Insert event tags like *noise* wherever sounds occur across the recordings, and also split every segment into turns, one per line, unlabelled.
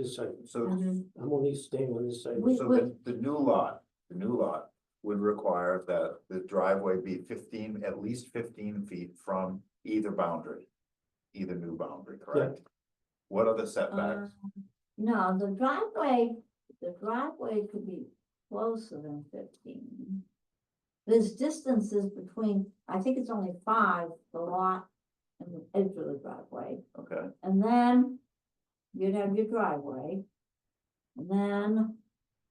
this side,
So,
Mhm.
I'm only staying on this side.
We-
So
so the, the new lot, the new lot would require that the driveway be fifteen, at least fifteen feet from either boundary. Either new boundary, correct? What are the setbacks?
Um, No, the driveway, the driveway could be closer than fifteen. There's distances between, I think it's only five, the lot and the edge of the driveway,
Okay,
and then you'd have your driveway. And then,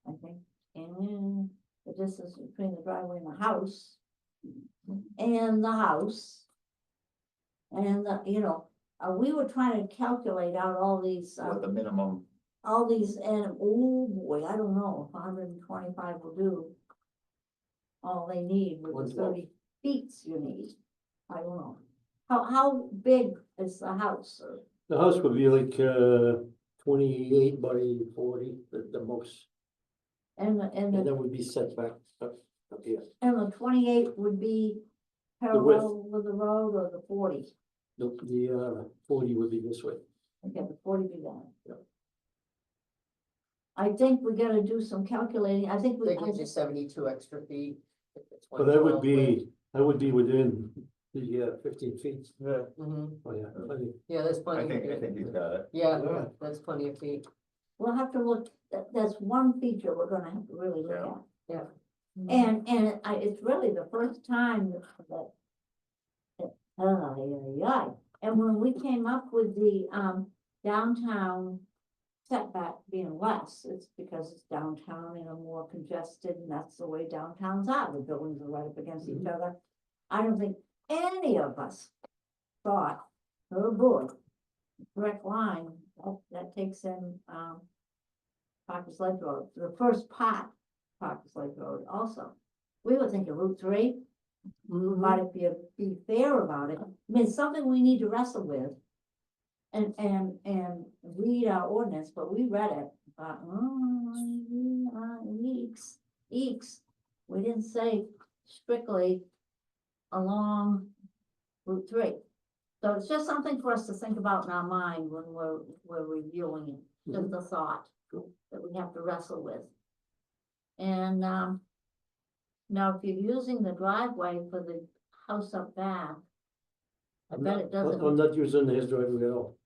I think, and the distance between the driveway and the house. And the house. And, the- you know, uh, we were trying to calculate out all these, uh,
what the minimum,
all these, and, oh boy, I don't know, if hundred and twenty-five will do. All they need with
What's
the
that?
thirty feet you need, I don't know. How, how big is the house? or-
The house would be like, uh, twenty-eight by forty, the, the most,
And, the and,
and
the
that would be setback up, up here,
and the twenty-eight would be
width.
parallel with the road or the forty?
the, the, uh, forty would be this way.
Okay, the forty be gone.
Yep.
I think we gotta do some calculating, I think we.
That gives you seventy-two extra feet. if it's
So that would
112 width.
be, that would be within the uh, fifteen feet. Yeah.
Mhm.
Oh, yeah, plenty.
Yeah, that's
I
plenty. of
think, I think
feet.
you've got it.
Yeah,
Yeah.
that's plenty of feet.
We'll have to look, that, that's one feature we're gonna have to really look at.
Yeah.
And, and I, it's really the first time that. that- Oh, yeah, yeah, and when we came up with the, um, downtown setback being less, it's because it's downtown and are more congested, and that's the way downtowns are, the buildings are right up against each other. I don't think any of us thought, oh boy, direct line, that, that takes in, um, Parker's Ledge Road, the first part, Parker's Ledge Road also. We were thinking Route Three,
Mm-hmm.
might if you be fair about it, I mean, it's something we need to wrestle with. And, and, and read our ordinance, but we read it, but, oh, eeks, eeks. We didn't say strictly along Route Three. So it's just something for us to think about in our mind when we're, we're reviewing it, just a thought
Cool.
that we have to wrestle with. And, um, now if you're using the driveway for the house up back, I
I'm
bet
not-
it doesn't-
I'm not using his driveway at all.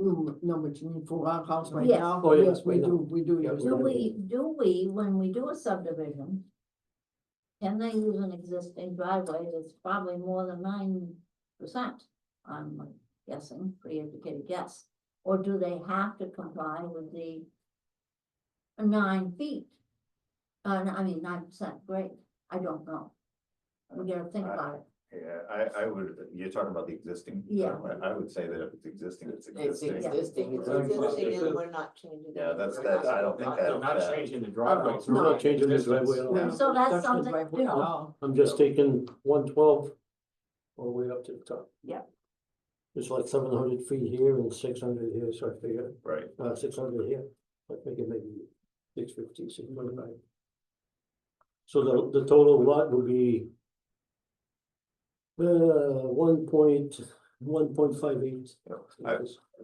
Mm, No, but you mean for our house right
Yes.
now?
Oh, yeah,
Yes, we
right now.
do, we do.
Yeah,
use
we
do
that.
we, do we, when we do a subdivision, can they use an existing driveway that's probably more than nine percent? I'm guessing, pre-educated guess, or do they have to comply with the nine feet? Uh, no, I mean, nine percent, great, I don't know, we gotta think
I-
about it.
Yeah, I, I would, you're talking about the existing?
Yeah.
I- I would say that if it's existing, it's
It's
existing.
existing, it's
Very close.
existing, and we're not changing.
Yeah,
it.
that's-
We're
that's-
not-
I don't think
Not-
that-
they're Not
that-
changing the driveway.
We're not changing the
this
driveway at all.
Yeah.
So
Touch
that's
the
something,
driveway
you
at
know.
all.
I'm just taking one twelve all the way up to the top.
Yeah.
It's like seven hundred feet here and six hundred here, so I figure,
Right,
uh, six hundred here, I think it may be six fifty, six twenty-nine. So the, the total lot would be uh, one point, one point five eight.
Yeah, I-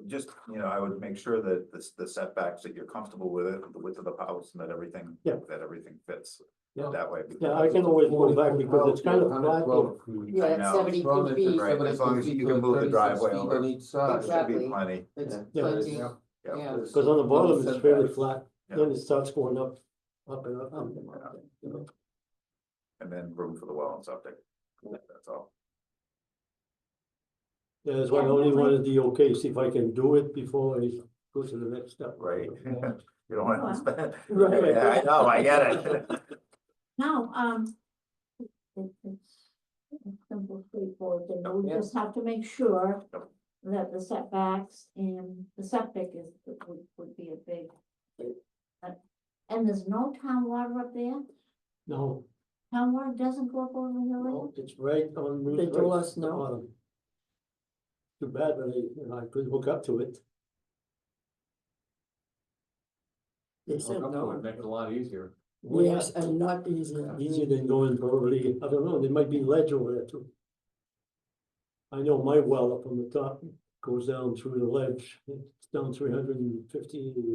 just, you know, I would make sure that the, the setbacks, that you're comfortable with it, the width of the house and that everything,
Yeah.
that everything fits
Yeah.
that way. because
Yeah, I can always go back because it's kind of flat. here.
Yeah,
I
it's
know.
seventy-two feet.
Right, as long as you can move the driveway over.
On each
There
side.
should be
Exactly.
plenty,
It's
Yeah.
Yeah.
plenty,
Yeah.
yeah.
Cause on the bottom, it's fairly flat,
Yeah.
then it starts going up, up and up. and up.
and then room for the well and septic, that's all.
Yeah, That's why I
Yeah,
only
definitely.
wanted the okay, see if I can do it before I go to the next step.
Right. You don't want
Well.
to spend.
*laughs* Right.
Yeah, I know, I get it.
No, um, it- it's it's simple, straightforward, thing, but we
Yeah.
just have to make sure
Yep.
that the setbacks and the septic is, would, would be a big. uh, And there's no town water up there,
No,
town water doesn't go up over the hill,
no, it's right on. Route
They
three,
told us
the
no.
bottom. Too bad, but I, you know, I couldn't hook up to it.
They
Hook
said
up to it,
no.
Make it a lot easier.
Yes, and not easy.
Easier than going probably, I don't know, there might be ledge over there too. I know my well up on the top goes down through the ledge, it's down three hundred and fifty